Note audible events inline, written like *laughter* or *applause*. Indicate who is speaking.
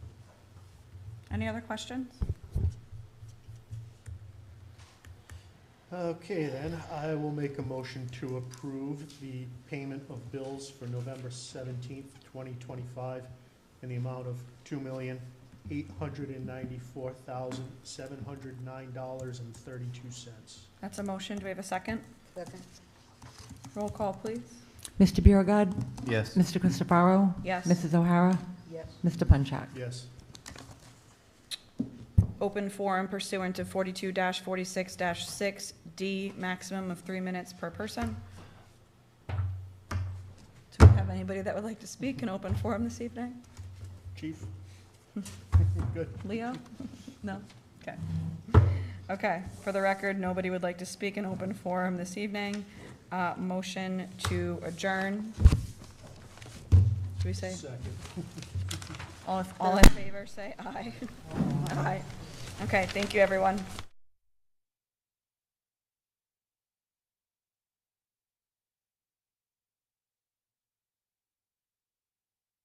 Speaker 1: Any other questions?
Speaker 2: Okay, then, I will make a motion to approve the payment of bills for November seventeenth, twenty twenty-five in the amount of two million, eight hundred and ninety-four thousand, seven hundred nine dollars and thirty-two cents.
Speaker 1: That's a motion. Do we have a second?
Speaker 3: Second.
Speaker 1: Roll call, please.
Speaker 4: Mr. Biragad.
Speaker 5: Yes.
Speaker 4: Mr. Christopherow.
Speaker 1: Yes.
Speaker 4: Mrs. O'Hara.
Speaker 3: Yes.
Speaker 4: Mr. Punchak.
Speaker 2: Yes,
Speaker 1: Open forum pursuant to forty-two forty-six six D, maximum of three minutes per person. Do we have anybody that would like to speak in open forum this evening?
Speaker 2: chief? Good.
Speaker 1: Leo? *laughs* No? Okay. Okay, for the record, nobody would like to speak in open forum this evening. Uh, motion to adjourn. Should we say,
Speaker 2: Second.
Speaker 1: *laughs* all, all in favor, say aye. Aye. Okay, thank you, everyone.